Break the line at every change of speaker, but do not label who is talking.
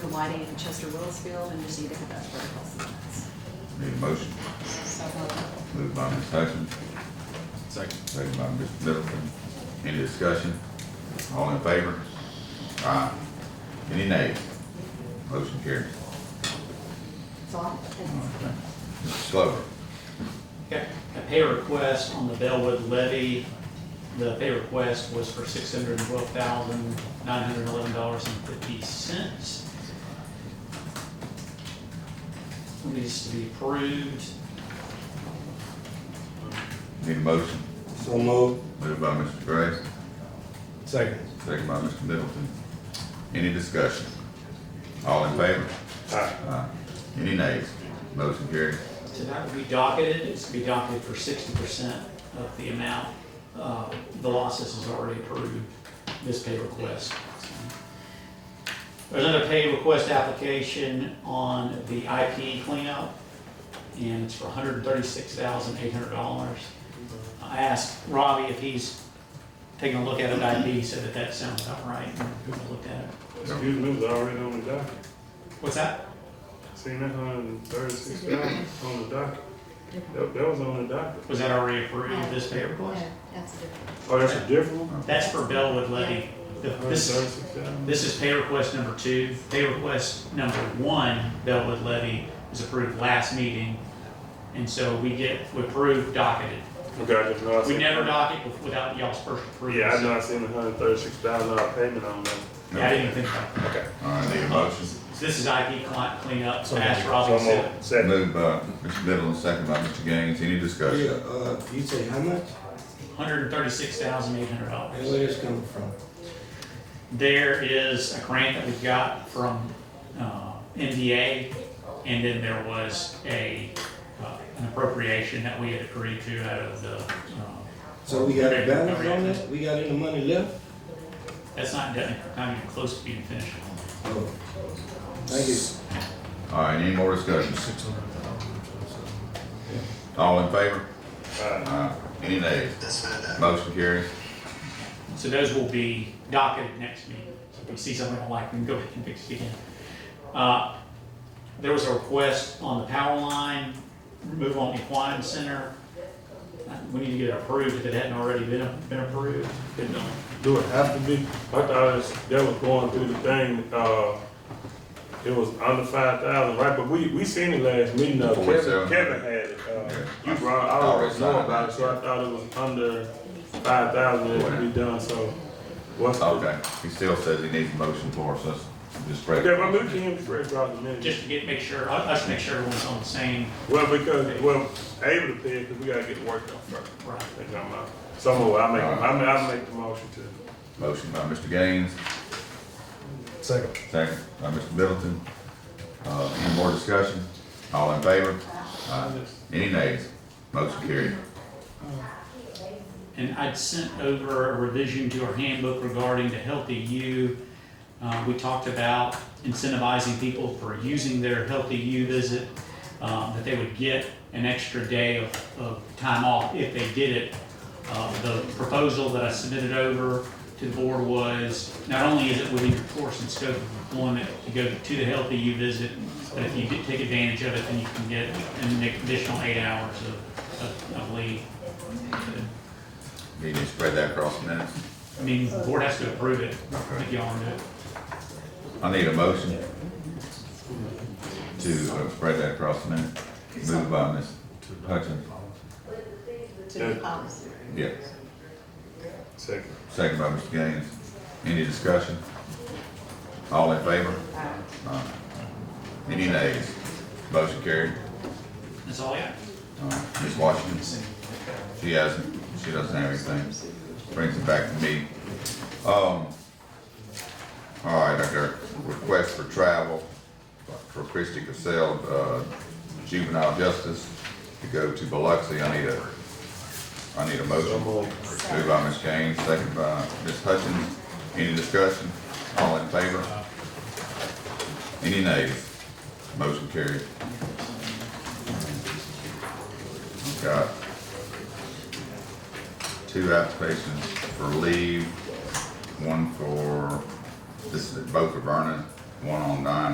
some lighting in Chester Willis Field and just need to have that vertical silence.
Need a motion,
So
moved by Ms. Hutchins,
Second.
second by Mr. Middleton. Any discussion? All in favor? Aye. Any nays? Motion carries.
it's all.
Okay. Mr. Slover,
Okay, a pay request on the Bellwood levy. The pay request was for six hundred and twelve thousand, nine hundred and eleven dollars and fifty cents. Needs to be approved.
need a motion,
So moved.
moved by Mr. Gray,
Second.
second by Mr. Middleton. Any discussion? All in favor?
Aye.
Aye. Any nays? Motion carries.
So that will be docketed, it's to be docketed for sixty percent of the amount. Uh, The losses is already approved, this pay request. There's another pay request application on the IP cleanup, and it's for hundred and thirty-six thousand eight hundred dollars. I asked Robbie if he's taking a look at it, IP, he said that that sounds about right, and he looked at it.
Excuse me, it was already on the docket.
What's that?
Seen that hundred and thirty-six thousand on the docket. That, that was on the docket.
Was that already approved, this pay request?
That's different.
Oh, that's a different one?
That's for Bellwood Levy. The-
Hundred and
This is
thirty-six thousand?
This is pay request number two. Pay request number one, Bellwood levy, was approved last meeting. And so we get, we approve docketed.
Okay, I just know I
We
seen.
never dock it without y'all's first approval.
Yeah, I know I seen the hundred and thirty-six thousand dollar payment on that.
Yeah, I didn't even think about that.
All right, need a motion.
So this is IP client cleanup, Ash Robbins.
So moved. Second.
Moved by Mr. Middleton, second by Mr. Gaines. Any
Yeah,
discussion?
uh, you say how much?
hundred and thirty-six thousand eight hundred
And where
dollars.
this coming from?
There is a grant that we got from, uh, NDA, and then there was a, uh, an appropriation that we had agreed to out of the, uh,
So we got a balance on that? We got any money left?
That's not done, not even close to being finished.
Oh. Thank you.
All right, any more discussion? All in favor?
Aye.
Aye. Any nays? Motion carries.
So those will be docketed next meeting. So if you see something you don't like, we can go ahead and fix it again. Uh, There was a request on the power line, remove on Equine Center. Uh, We need to get it approved if it hadn't already been, been approved. It don't.
Do it have to be? I thought it was, that was going through the thing, uh, it was under five thousand, right? But we, we seen it last meeting, uh, Kevin,
47.
Kevin had it. Uh,
Yeah.
You brought, I
Already
already know
signed.
about it, so I thought it was under five thousand, it could be done, so. What's the
Okay, he still says he needs a motion for us, let's just break.
Okay, well, we can spread out the minutes.
Just to get, make sure, uh, us make sure everyone's on the same,
Well, because, well, able to pay, because we gotta get the work done first.
right.
That's what I'm, uh, So, move. I make, I ma- I make the motion to,
Motion by Mr. Gaines,
Second.
second by Mr. Middleton. Uh, any more discussion? All in favor? Aye. Any nays? Motion carries.
And I'd sent over a revision to our handbook regarding the Healthy You. Uh, we talked about incentivizing people for using their Healthy You visit, um, that they would get an extra day of, of time off if they did it. Uh, the proposal that I submitted over to the board was, not only is it within your course and scope of employment to go to the Healthy You visit, but if you did take advantage of it, then you can get an additional eight hours of, of, of leave.
Need to spread that across the minutes.
I mean, the board has to approve it, if y'all want to do it.
I need a motion to uh, spread that across the minutes. Moved by Ms. Hutchins,
To the policy.
yeah.
second.
Second by Mr. Gaines. Any discussion? All in favor? Aye. Any nays? Motion carried.
That's all I got.
Uh, Ms. Washington, she hasn't, she doesn't have anything. Brings it back to me. Um, all right, I got a request for travel for Christy Cassell, uh, juvenile justice to go to Biloxi. I need a, I need a
So,
motion.
move.
Moved by Ms. Gaines, second by Ms. Hutchins. Any discussion? All in favor? Any nays? Motion carried. Got two applications for leave, one for, this is both for Vernon, one on nine